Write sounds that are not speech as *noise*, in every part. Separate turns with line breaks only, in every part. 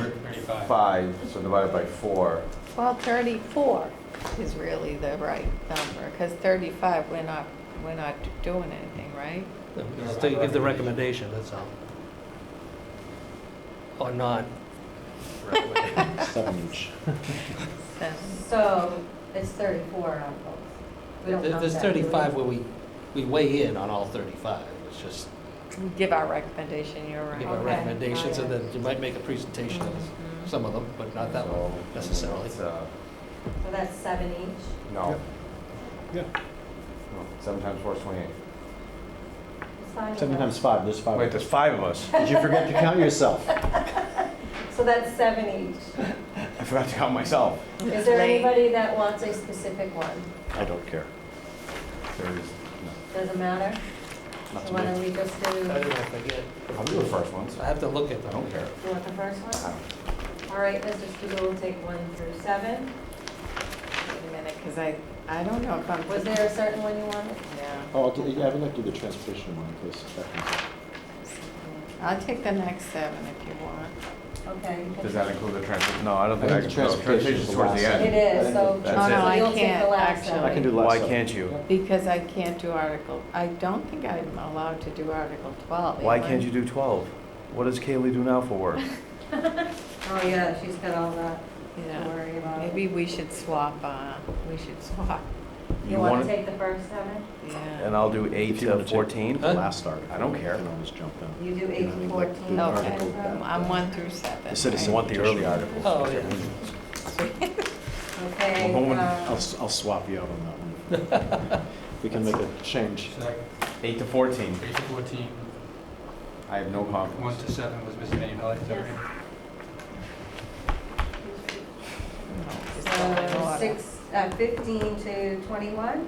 35.
35, so divided by 4.
Well, 34 is really the right number, because 35, we're not, we're not doing anything, right?
Just to give the recommendation, that's all. Or not.
Seven.
So it's 34 on both. We don't
There-
count
There's
that, do we?
35 where we, we weigh in on all 35. It's just
We Give our recommendation, you're
give
right.
our
Okay. Mm-hmm.
recommendations, and then you might make a presentation of
Mhm.
some of them, but not that
So,
one necessarily.
it's, uh,
So that's seven each.
No,
Yeah,
no, 7 times 4 is 28.
It's fine with
Seven
us.
times five, there's five.
Wait, there's five of us.
Did you forget to count yourself?
So that's seven each.
*laughs* I forgot to count myself.
Is there
Late.
anybody that wants a specific one?
I don't care.
There is, no.
Doesn't matter?
Not
So
to
why
me.
don't we just do,
I don't
you
know if I get,
I'll do the first ones.
I have to look at
I
them.
don't care.
want the first
I
one?
don't-
All right, Mr. Studo will take one through seven.
Wait a minute, because I, I don't know if I'm.
Was there a certain one you wanted?
Yeah.
Oh, I'll do- yeah, I would like to do the transportation one, please. That one's-
I'll take the next seven if you want.
Okay. you can-
Does that include the transit? No, I don't think
I
I
think
can.
the transportation is the
towards
last
the
one.
It
end.
is, so.
That's
Oh,
it.
no,
so
I
you'll take the
can't,
last
actually.
one.
I can do the last
Why
one.
can't you?
Because I can't do Article, I don't think I'm allowed to do Article 12.
Why
am I?
can't you do 12? What does Kaylee do now for work?
Oh, yeah, she's got all that to
Yeah.
worry about.
Maybe we should swap, uh, we should swap,
You want to take the first seven?
yeah.
And I'll do 8
If you
to
wanna take
14?
The last article.
I don't care.
You can always jump in.
You do
You
eight
know,
to
like,
14.
the
Okay.
article that-
I'm one through seven.
The citizen
right?
want the
petition.
early articles.
Oh, yeah.
Okay.
Well, Roman-
uh,
I'll, s- I'll swap you out on that one. *laughs* We can make a change.
second,
8 to 14.
8 to 14,
I have no
1
confidence.
to 7 was Mr. Manu Pelley, is that right?
Just don't know
So
what-
six, uh, 15 to 21?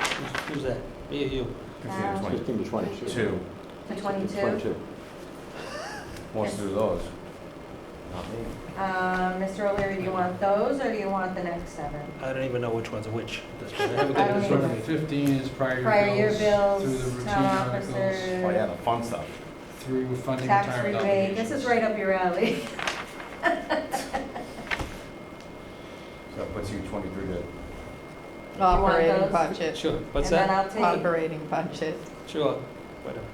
Who's- Who's that? Me or you?
15 to
Uh,
20.
Fifteen to twenty-two.
2.
To 22?
Twenty-two.
Wants to do those. Not me.
Uh, Mr. O'Leary, do you want those or do you want the next seven?
I don't even know which ones are which. at this point. *laughs* I haven't
I
got it in
don't
front of
either.
me.
15 is
Prior
prior
year
year bills, through the
bills,
routine
town
articles,
Oh, yeah,
officer,
the fun stuff.
through funding
tax
retirement
rebate. This
obligations.
is right up your alley.
So that puts you 23 to
Operating
those?
budget,
Sure, what's
And
that?
then I'll take,
operating budget.
Sure. Whatever.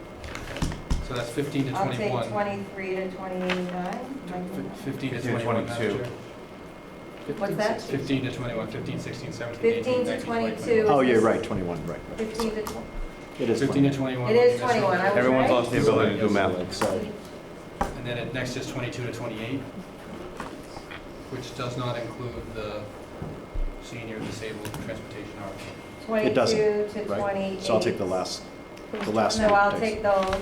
So that's 15 to
I'll take
21.
23 to 29.
F- 15 to
15 to
21, Madam
22.
Chair.
What's that?
15 to 21, 15, 16, 17, 18,
15 to
19, 20,
22.
21.
Oh, yeah, right, twenty-one, right, right.
15 to 20.
It is
15 to 21.
twenty-one.
It is
that's right.
21, I was
Everyone's
right.
lost the ability to do math.
Like, so,
And then it next is 22 to 28, which does not include the senior disabled transportation article.
It doesn't,
22 to 28.
right, so I'll take the last, the last one.
So I'll
thanks.
take those.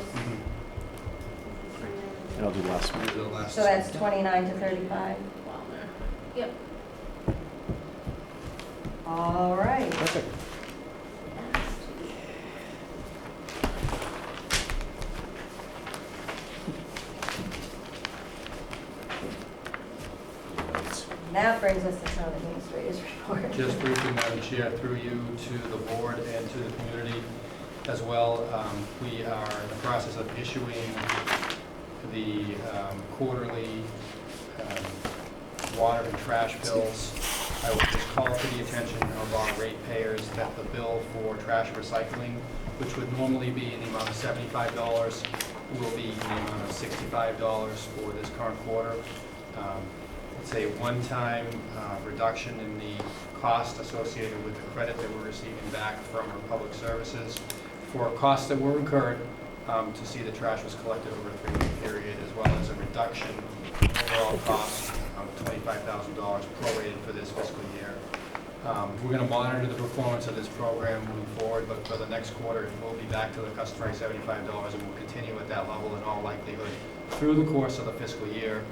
And I'll do the last one.
These are the last.
So that's 29 to 35.
Yep.
All right.
Perfect.
That brings us to town administrator's report.
Just briefly, Madam Chair, through you to the board and to the community as well. Um, We are in the process of issuing the um, quarterly um, water and trash bills. I would just call to the attention of our ratepayers that the bill for trash recycling, which would normally be in the amount of seventy-five dollars, will be in the amount of sixty-five dollars for this current quarter. Um, It's a one-time uh, reduction in the cost associated with the credit that we're receiving back from our public services for costs that were incurred um, to see the trash was collected over a three-year period, as well as a reduction in overall cost of $25,000 prorated for this fiscal year. Um, We're going to monitor the performance of this program moving forward, but for the next quarter, it will be back to the customary $75, and will continue at that level in all likelihood through the course of the fiscal year.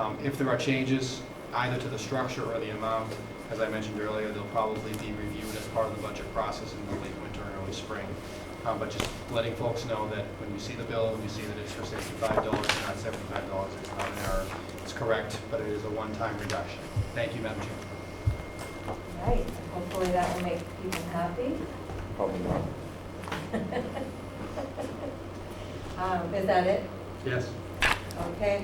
Um, If there are changes, either to the structure or the amount, as I mentioned earlier, they'll probably be reviewed as part of the budget process in the late winter and early spring. Um, But just letting folks know that when you see the bill, when you see that it's for sixty-five dollars, not seventy-five dollars, it's not an error. It's correct, but it is a one-time reduction. Thank you, Madam Chair.
Right, hopefully that will make people happy.
Probably not.
*laughs* Um, Is that it?
Yes.
Okay,